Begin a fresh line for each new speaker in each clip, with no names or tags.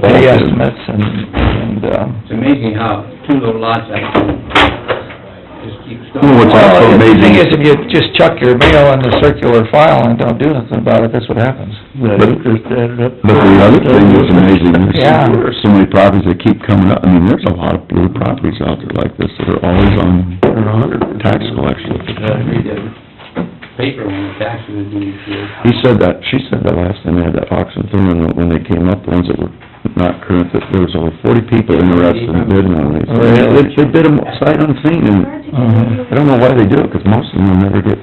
pay estimates and, and, um...
It's amazing how two little lots actually just keep
Well,
going.
what's that?
Well,
also
the thing
amazing.
is, Uh, if you just chuck your mail in the circular file and don't do nothing about it, that's what happens.
But-
interest added up.
But the other thing that's amazing,
Yeah.
there's so many properties that keep coming up, I mean, there's a lot of little properties out there like this that are always on tax collection.
I read the paper when the taxes were due, so
He said that, she said that last time they had that auction thing, and when they came up, the ones that were not current, that there was over forty people interested in bidding
Oh,
on these. They, they bid them sight unseen, and
Mm-hmm.
I don't know why they do it, 'cause most of them will never get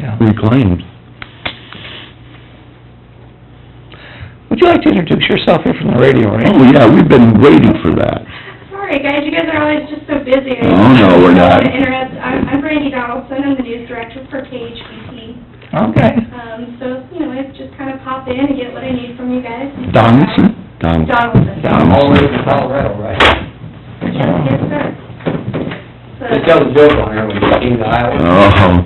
Yeah.
reclaimed.
Would you like to introduce yourself here from the radio,
Oh,
right?
yeah, we've been waiting for that.
Sorry, guys, you guys are always just so busy. I-
Oh, no, we're not.
I'm interrupt- I'm I'm Brandy Donaldson, I'm the news director for KHBP.
Okay.
Um, so, you know, I just kind of pop in and get what I need from you guys.
Donaldson? Donaldson.
Donaldson.
Donaldson.
all the way from Colorado, right?
Yes, sir.
They
So,
tell the joke on there when you came to Iowa,
Oh.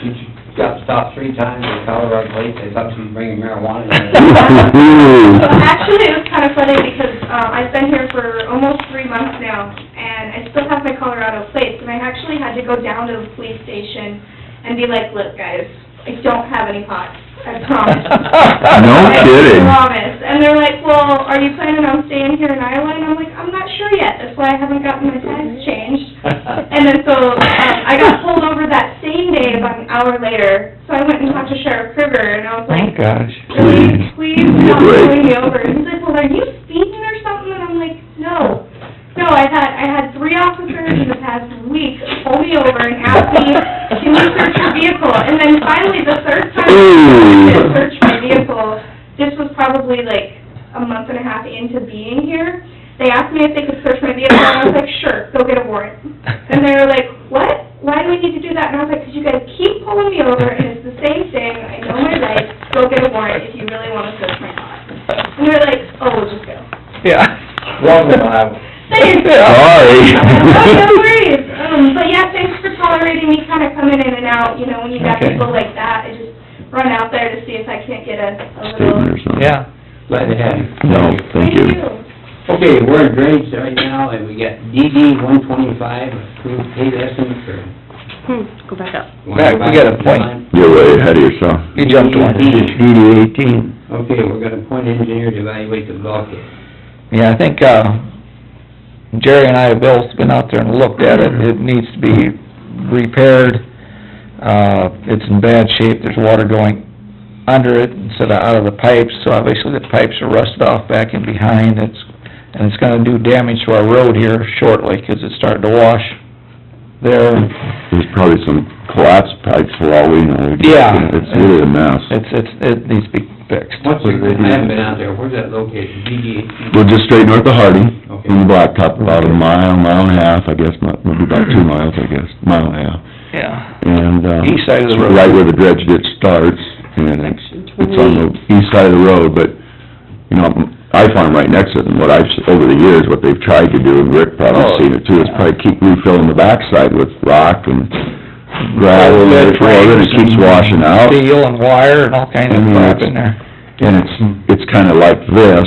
she got stopped three times in Colorado Lake, they thought she was bringing marijuana in there.
so
Well,
actually, it was kind of funny because, uh, I've been here for almost three months now, and I still have my Colorado plates, and I actually had to go down to the police station and be like, look, guys, I don't have any pot, I promise.
No kidding.
I promise. And they're like, well, are you planning on staying here in Iowa? And I'm like, I'm not sure yet, that's why I haven't gotten my tags changed. And then so, um, I got pulled over that same day about an hour later, so I went and talked to Sheriff Kruger, and I was
Oh,
like,
gosh.
really,
Please.
please, stop
Right.
pulling me over. And he's like, well, are you speeding or something? And I'm like, no. No, I had, I had three officers in the past week pull me over and ask me, can you search your vehicle? And then finally, the third time they
Ooh.
searched my vehicle, this was probably like a month and a half into being here, they asked me if they could search my vehicle, and I was like, sure, go get a warrant. And they were like, what? Why do we need to do that? And I was like, because you guys keep pulling me over, and it's the same thing, I know my rights, go get a warrant if you really want to search my car. And they were like, oh, we'll just go.
Yeah.
Welcome, Iowa.
Thanks.
Sorry.
Oh, no worries. Um, but yeah, thanks for tolerating me kind of coming in and out, you know, when you got
Okay.
people like that, I just run out there to see if I can't get a, a little...
Statement or something?
Yeah.
Glad to have you.
No, thank you.
Okay, we're in drainage right now, and we got DD one twenty-five, approved paid estimate for...
Hmm, Go back up.
Back, we got a point.
You're way ahead of yourself.
You jumped one.
DD eighteen.
Okay, we're gonna appoint engineer to evaluate the bulkhead.
Yeah, I think, uh, Jerry and I have both been out there and looked at it, it needs to be repaired. Uh, it's in bad shape, there's water going under it instead of out of the pipes, so obviously the pipes are rusted off back and behind, it's, and it's gonna do damage to our road here shortly, 'cause it's starting to wash there.
There's probably some collapsed pipes for all we know.
Yeah.
It's really a mess.
It's, it's, it needs to be fixed.
What's the, I haven't been out there, where's that located, DD?
We're just straight north of Harding,
Okay.
in the blacktop, about a mile, mile and a half, I guess, mi- maybe about two miles, I guess, mile and a half.
Yeah.
And, uh...
East side of the road.
Right where the dredge ditch starts, and it's, it's on the east side of the road, but, you know, I farm right next to it, and what I've, s- over the years, what they've tried to do, and Rick probably
Oh,
seen it too, is
yeah.
probably keep refilling the backside with rock and gravel, and
Bed
it- well, then
frames
it
Oh,
keeps
and
washing out.
Steel and wire and all kinds of
Mhm.
crap in there.
And it's, it's kinda like this,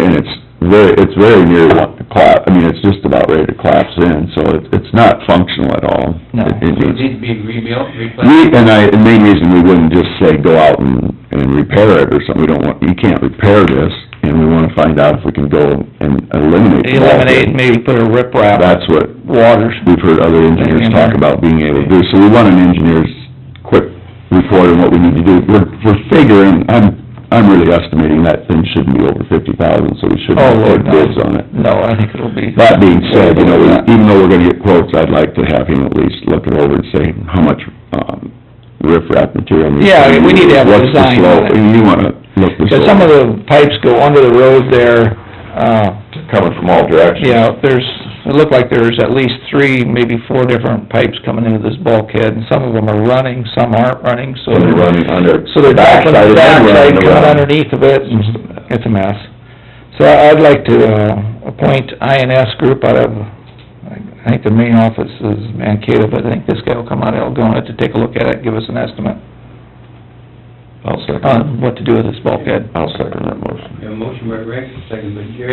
and it's very, it's very near what the collapse, I mean, it's just about ready to collapse in, so it's, it's not functional at all.
No.
It- it
So it
needs-
needs to be rebuilt, replaced?
We, and I, the main reason we wouldn't just say, go out and, and repair it or something, we don't want, you can't repair this, and we wanna find out if we can go and eliminate. the bulk.
Eliminate and maybe put a rip wrap.
That's what
Waters.
we've heard other engineers talk about being able to do, so we want an engineer's quick report on what we need to do. We're, we're figuring, I'm, I'm really estimating that thing shouldn't be over fifty thousand, so we shouldn't
Oh,
put
Lord, no.
bids on it.
No, I think it'll be.
That being said, you know, we- even though we're gonna get quotes, I'd like to have him at least look it over and say how much, um, riprap material. needs to
Yeah, we
be
need to have a
used,
design on
What's
it.
the slope, you wanna look this
Because
over.
some of the pipes go under the road there, uh,
Coming from all directions.
you know, there's, it looked like there's at least three, maybe four different pipes coming into this bulkhead, and some of them are running, some aren't running, so.
When you're running under.
So they're back on the Mm-hmm. backside,
Backside and running
coming
around.
underneath of it, and it's a mess. So I- I'd like to, uh, appoint INS group out of, I think the main office is Mankato, but I think this guy will come out of Algonah to take a look at it, give us an estimate. I'll second,
on what to do with this bulkhead.
I'll second that motion.
We have a motion by Rick, second by Jerry,